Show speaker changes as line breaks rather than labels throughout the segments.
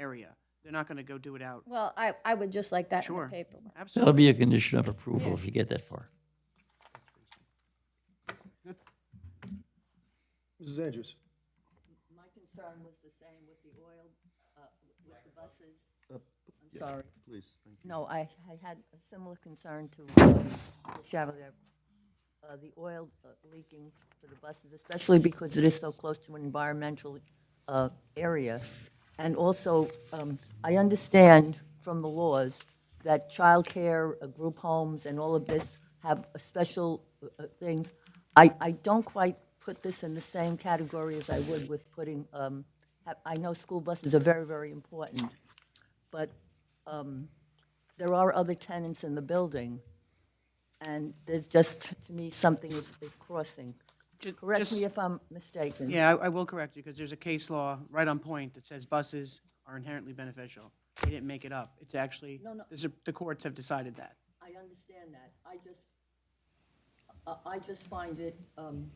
area. They're not gonna go do it out.
Well, I, I would just like that in the
Sure.
paperwork.
Absolutely.
That'll be a condition of approval if you get that far.
Mrs. Andrews?
My concern was the same with the oil, uh, with the buses. I'm
yeah.
sorry.
Please, thank you.
No, I, I had a similar concern to uh, Ms. Chevalier, uh, the oil uh, leaking for the buses, especially because it is so close to an environmental uh, area. And also, um, I understand from the laws that childcare, uh, group homes, and all of this have a special uh, uh, thing. I, I don't quite put this in the same category as I would with putting, um, I- I know school buses are very, very important, but there are other tenants in the building, and there's just, to me, something is, is crossing.
Ju-
Correct
just-
me if I'm mistaken.
Yeah, I I will correct you, because there's a case law right on point that says buses are inherently beneficial. They didn't make it up. It's actually,
no.
the Sup- the courts have decided that.
I understand that. I just, I- I just find it, um,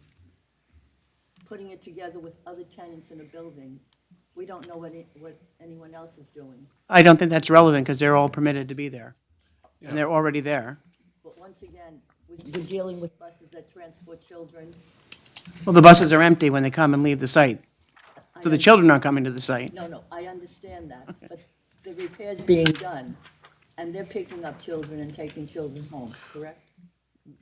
putting it together with other tenants in a building, we don't know what, it- what anyone else is doing.
I don't think that's relevant, because they're all permitted to be there, and they're already there.
But once again, we- we're dealing with buses that transport children.
Well, the buses are empty when they come and leave the site,
I
so the
un-
children aren't coming to the site.
No, no, I understand that, but the repair's being done, and they're picking up children and taking children home, correct?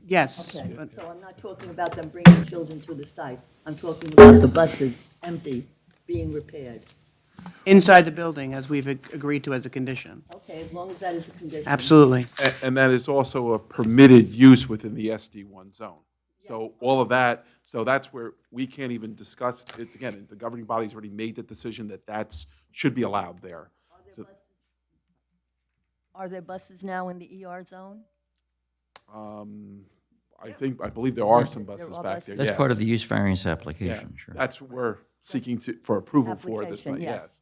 Yes,
Okay,
but
so I'm not talking about them bringing children to the site. I'm talking about the buses empty, being repaired.
inside the building, as we've ag- agreed to as a condition.
Okay, as long as that is a condition.
Absolutely.
A- And that is also a permitted use within the SD1 zone. So all of that, so that's where we can't even discuss, it's again, the governing body's already made the decision that that's, should be allowed there.
Are there buses now in the ER zone?
I think, I believe there are some buses
are
back there, yes.
That's part of the use variance
Yeah,
application, sure.
That's what we're seeking to, for approval for this
Application,
night,
yes.
yes.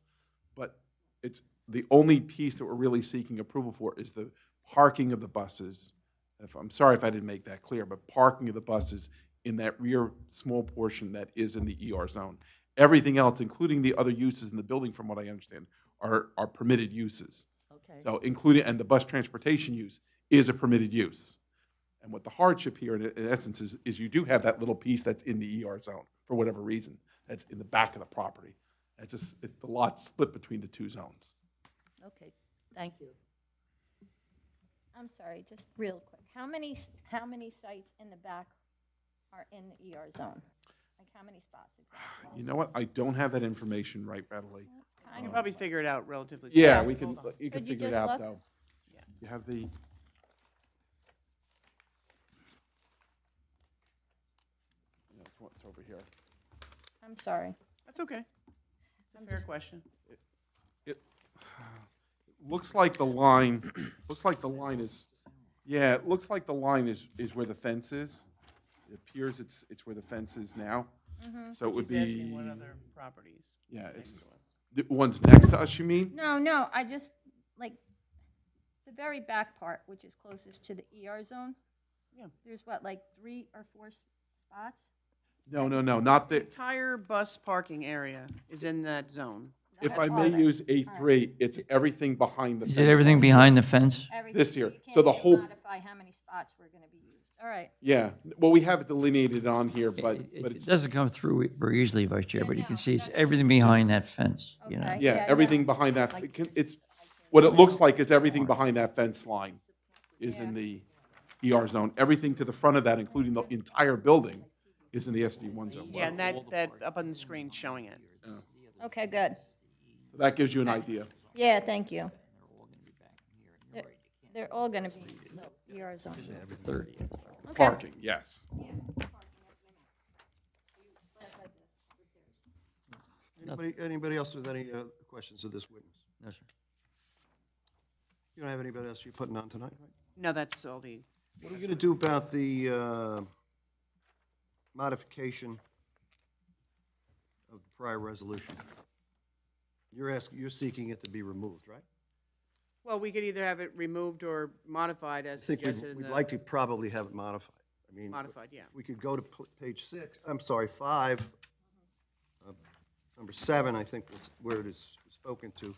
But it's, the only piece that we're really seeking approval for is the parking of the buses. If, I'm sorry if I didn't make that clear, but parking of the buses in that rear small portion that is in the ER zone. Everything else, including the other uses in the building, from what I understand, are, are permitted uses.
Okay.
So including, and the bus transportation use is a permitted use. And what the hardship here, in in essence, is, is you do have that little piece that's in the ER zone, for whatever reason, that's in the back of the property. It's just, it- the lots split between the two zones.
Okay, thank you.
I'm sorry, just real quick. How many, s- how many sites in the back are in the ER zone? Like, how many spots? exactly?
You know what, I don't have that information right readily.
You can probably figure it out relatively.
Yeah, we can, you can
Could you
figure it
just
out,
look?
though. You have the, no, it's one- it's over here.
I'm sorry.
That's okay. It's a fair question.
It Looks like the line, looks like the line is, yeah, it looks like the line is, is where the fence is. It appears it's, it's where the fence is now. So it would
He's asking
be,
what other properties.
yeah, it's, the ones next to us, you mean?
No, no, I just, like, the very back part, which is closest to the ER zone.
Yeah.
There's what, like, three or four s- spots?
No, no, no, not the,
Entire bus parking area is in that zone.
if I may use A3, it's everything behind the
Is
fence.
it everything behind the fence?
Everything,
This
so
here.
you
So
can't
the
even
whole-
Modify how many spots were gonna be used. All right.
Yeah, well, we have it delineated on here, but,
It-
but
It
it's,
doesn't come through very easily, Vice Chair, but you
no,
can see it's
that's-
everything behind that fence, you know?
Okay.
yeah,
yeah,
everything behind that, it can- it's, what it looks like is everything behind that fence line is in the ER zone. Everything to the front of that, including the entire building, is in the SD1 zone.
Yeah, and that, that up on the screen showing it.
Okay, good.
That gives you an idea.
Yeah, thank you. They're- They're all gonna be ER zone.
Parking, yes.
Anybody, anybody else with any uh, questions of this witness?
No, sir.
You don't have anybody else you're putting on tonight, right?
No, that's all the,
What are we gonna do about the uh, modification of the prior resolution? You're asking, you're seeking it to be removed, right?
well, we could either have it removed or modified
I
as
think we'd-
suggested in
we'd
the
like to probably have it modified. I mean,
modified, yeah.
if we could go to p- page six, I'm sorry, five, uh, number seven, I think was where it is spoken to.